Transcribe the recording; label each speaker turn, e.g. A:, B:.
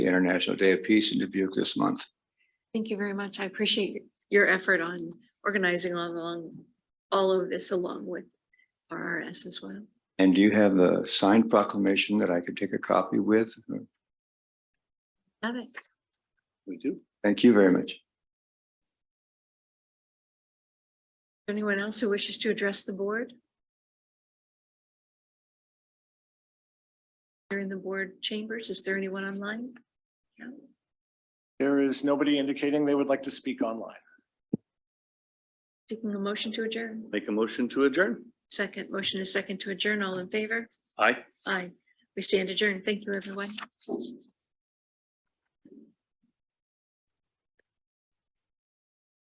A: the International Day of Peace in Dubuque this month.
B: Thank you very much. I appreciate your effort on organizing all along, all of this along with RRS as well.
A: And do you have a signed proclamation that I could take a copy with?
B: Love it.
C: We do.
A: Thank you very much.
B: Anyone else who wishes to address the board? Here in the board chambers, is there anyone online? No.
C: There is nobody indicating they would like to speak online.
B: Taking a motion to adjourn.
D: Make a motion to adjourn.
B: Second, motion is second to adjourn. All in favor?
D: Aye.
B: Aye. We stand adjourned. Thank you, everyone.